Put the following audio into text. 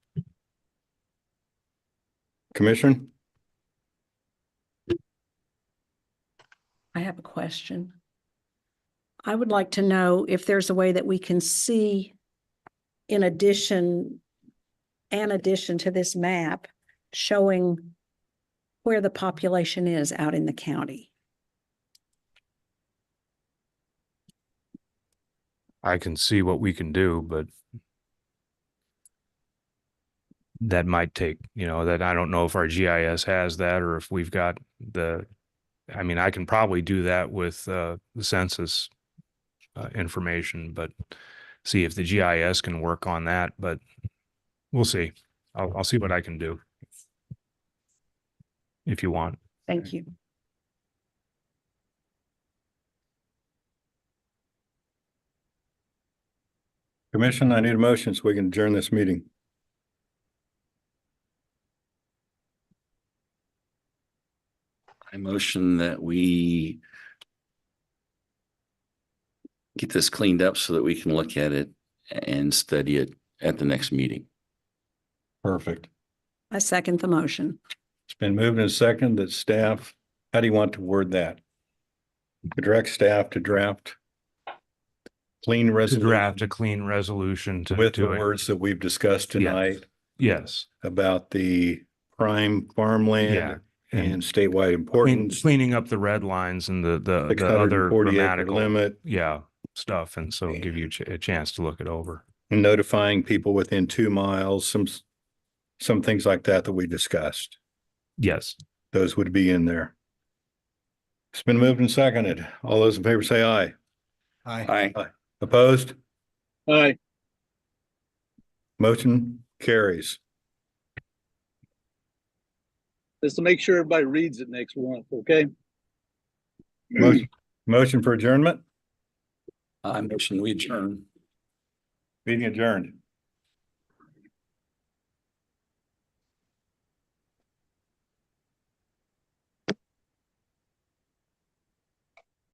Commissioner? I have a question. I would like to know if there's a way that we can see in addition, an addition to this map showing where the population is out in the county. I can see what we can do, but that might take, you know, that I don't know if our GIS has that or if we've got the, I mean, I can probably do that with uh, the census uh, information, but see if the GIS can work on that, but we'll see. I'll, I'll see what I can do. If you want. Thank you. Commission, I need a motion so we can adjourn this meeting. I motion that we get this cleaned up so that we can look at it and study it at the next meeting. Perfect. I second the motion. It's been moved and seconded that staff, how do you want to word that? Direct staff to draft clean To draft a resolution clean resolution to. with the to it. words that we've discussed tonight Yes. about the prime Yeah. farmland and statewide Clean- importance, Cleaning up the red lines and the, the, six the hundred other and forty acre grammatical, limit, yeah, stuff. And so give you a ch- a chance to look it over. notifying people within two miles, some, some things like that that we discussed. Yes. Those would be in there. It's been moved and seconded. All those in favor say aye. Aye. Opposed? Aye. Motion carries. Just to make sure everybody reads it next month, okay? Motion- Motion for adjournment? I motion we adjourn. Meeting adjourned.